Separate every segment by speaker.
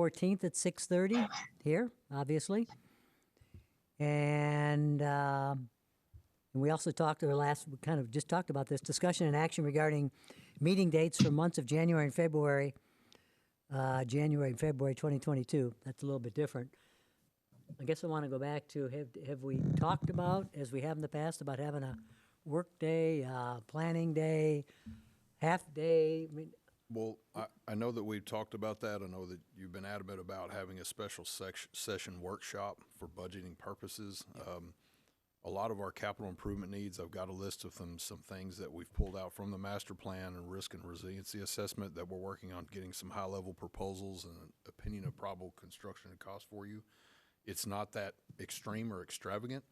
Speaker 1: 14th at 6:30 here, obviously. And um, and we also talked, or last, we kind of just talked about this, discussion and action regarding meeting dates for months of January and February, uh, January and February 2022. That's a little bit different. I guess I want to go back to, have, have we talked about, as we have in the past, about having a work day, uh, planning day, half day? I mean,
Speaker 2: Well, I, I know that we've talked about that. I know that you've been adamant about having a special sec- session workshop for budgeting purposes. Um, a lot of our capital improvement needs, I've got a list of them, some things that we've pulled out from the master plan and risk and resiliency assessment that we're working on getting some high level proposals and an opinion of probable construction and cost for you. It's not that extreme or extravagant.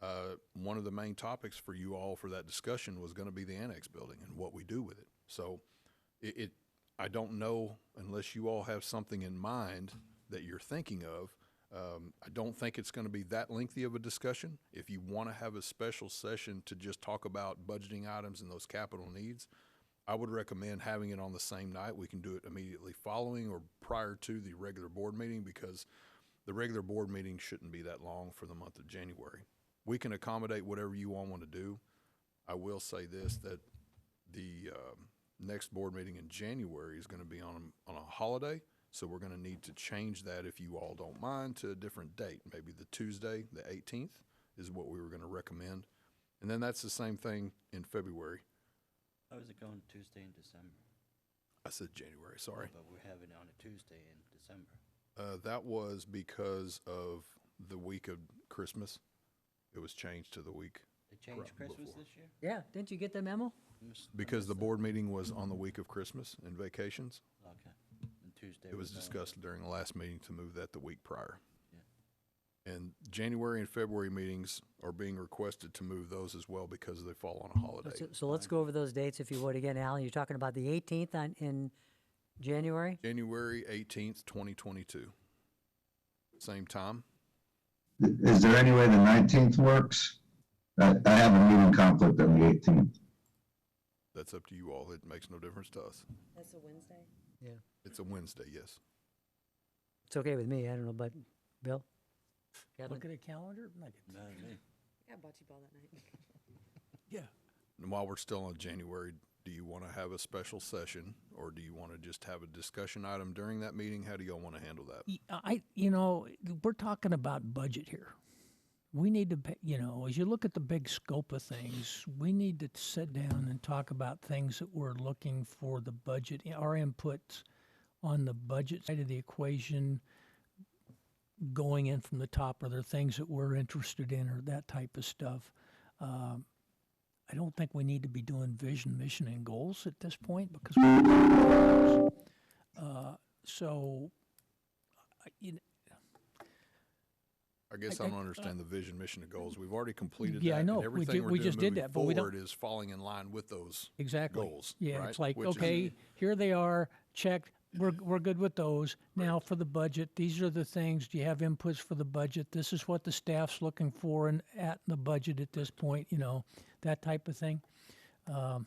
Speaker 2: Uh, one of the main topics for you all for that discussion was going to be the annex building and what we do with it. So it, it, I don't know unless you all have something in mind that you're thinking of. Um, I don't think it's going to be that lengthy of a discussion. If you want to have a special session to just talk about budgeting items and those capital needs, I would recommend having it on the same night. We can do it immediately following or prior to the regular board meeting because the regular board meeting shouldn't be that long for the month of January. We can accommodate whatever you all want to do. I will say this, that the um, next board meeting in January is going to be on, on a holiday. So we're going to need to change that, if you all don't mind, to a different date. Maybe the Tuesday, the 18th, is what we were going to recommend. And then that's the same thing in February.
Speaker 3: How Oh, is it going Tuesday in December? Oh,
Speaker 2: I said January, sorry.
Speaker 3: But we're having it on a Tuesday in December.
Speaker 2: Uh, that was because of the week of Christmas. It was changed to the week
Speaker 3: They changed
Speaker 2: Pro-
Speaker 3: Christmas
Speaker 2: before.
Speaker 3: this year?
Speaker 1: Yeah, didn't you get the memo?
Speaker 3: I missed- I
Speaker 2: because the
Speaker 3: missed
Speaker 2: board meeting was on the week of Christmas and vacations.
Speaker 3: that. Okay. And Tuesday.
Speaker 2: It was
Speaker 3: on-
Speaker 2: discussed during the last meeting to move that the week prior.
Speaker 3: Yeah.
Speaker 2: And January and February meetings are being requested to move those as well because they fall on
Speaker 1: So,
Speaker 2: a holiday.
Speaker 1: so let's go over those dates if you would again, Alan. You're talking about the 18th on, in January?
Speaker 2: January eighteenth, twenty twenty-two. Same time.
Speaker 4: Is there any way the nineteenth works? I, I have a meeting conflict on the eighteenth.
Speaker 2: That's up to you all. It makes no difference to us.
Speaker 5: That's a Wednesday?
Speaker 1: Yeah.
Speaker 2: It's a Wednesday, yes.
Speaker 1: It's okay with me. I don't know, but Bill? Kevin?
Speaker 6: Look at a calendar? Like,
Speaker 3: No, me.
Speaker 5: I got bocce ball that night.
Speaker 6: Yeah.
Speaker 2: And while we're still on January, do you want to have a special session or do you want to just have a discussion item during that meeting? How do y'all want to handle that?
Speaker 6: Y- I, you know, we're talking about budget here. We need to, pa- you know, as you look at the big scope of things, we need to sit down and talk about things that we're looking for the budget, our inputs on the budget side of the equation going in from the top. Are there things that we're interested in or that type of stuff? Um, I don't think we need to be doing vision, mission, and goals at this point because. we're- Uh, so I- you kn-
Speaker 2: I guess
Speaker 6: I-
Speaker 2: I don't
Speaker 6: I-
Speaker 2: understand the vision, mission, and goals. We've already completed
Speaker 6: Yeah,
Speaker 2: that.
Speaker 6: I
Speaker 2: and
Speaker 6: know. We
Speaker 2: everything
Speaker 6: did-
Speaker 2: we're
Speaker 6: we
Speaker 2: doing
Speaker 6: just did
Speaker 2: moving
Speaker 6: that, but we don't-
Speaker 2: Forward is falling in line with those.
Speaker 6: exactly.
Speaker 2: goals,
Speaker 6: Yeah,
Speaker 2: right?
Speaker 6: it's like
Speaker 2: Which is-
Speaker 6: okay, here they are. Check. We're we're good with those. Now for the budget, these are the things. Do you have inputs for the budget? This is what the staff's looking for and at in the budget at this point. You know that type of thing. Um,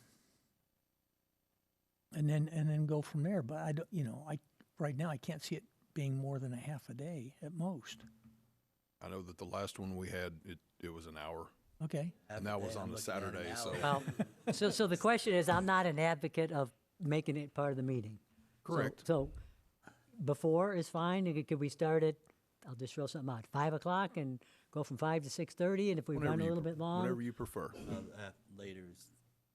Speaker 6: and then and then go from there. But I don't. You know, I right now I can't see it being more than a half a day at most.
Speaker 2: I know that the last one we had, it, it was an hour.
Speaker 6: Okay.
Speaker 3: Half
Speaker 2: And that was
Speaker 3: day,
Speaker 2: on
Speaker 3: I'm
Speaker 2: a
Speaker 3: looking at an
Speaker 2: Saturday,
Speaker 3: hour.
Speaker 2: so-
Speaker 1: Well, so, so the question is, I'm not an advocate of making it part of the meeting. So- So before is fine. and Could we start at, I'll just throw something out, 5 o'clock and go from 5 to 6:30? And if we
Speaker 2: Whenever
Speaker 1: run a
Speaker 2: you
Speaker 1: little
Speaker 2: pre-
Speaker 1: bit long,
Speaker 2: Whenever you prefer.
Speaker 3: Uh, uh, Later is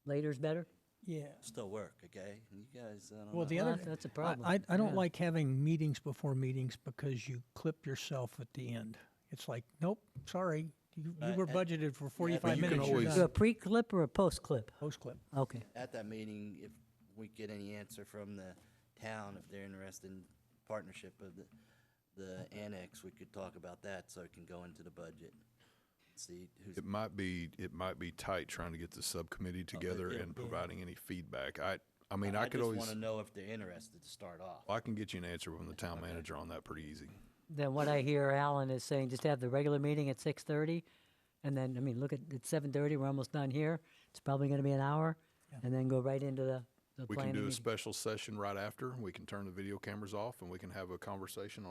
Speaker 1: later's better?
Speaker 6: Yeah.
Speaker 3: still work, okay? You guys, uh, I don't know.
Speaker 6: Well, the
Speaker 1: Well,
Speaker 6: other
Speaker 1: that's- that's a
Speaker 6: I-
Speaker 1: problem.
Speaker 6: I, I don't
Speaker 1: Yeah.
Speaker 6: like having meetings before meetings because you clip yourself at the end. It's like, nope, sorry, you, you
Speaker 3: Uh,
Speaker 6: were
Speaker 3: uh,
Speaker 6: budgeted for 45
Speaker 2: you can
Speaker 6: minutes. you're
Speaker 2: always-
Speaker 1: Do a
Speaker 6: done.
Speaker 1: pre-clip or a post-clip?
Speaker 6: Post clip.
Speaker 1: Okay.
Speaker 3: At that meeting, if we get any answer from the town, if they're interested in partnership of the, the annex, we could talk about that so it can go into the budget. See who's.
Speaker 2: It might be, it might be tight trying to get the subcommittee together and providing any feedback. I, I mean, I could
Speaker 3: just
Speaker 2: always,
Speaker 3: want to know if they're interested to start off.
Speaker 2: I can get you an answer from the town manager on that pretty easy.
Speaker 1: Then what I hear Alan is saying, just have the regular meeting at 6:30, and then, I mean, look at, it's 7:30, we're almost done here. It's probably going to be an hour, and then go right into the the
Speaker 2: We
Speaker 1: planning
Speaker 2: can do a
Speaker 1: meeting.
Speaker 2: special session right after. We can turn the video cameras off and we can have a conversation on.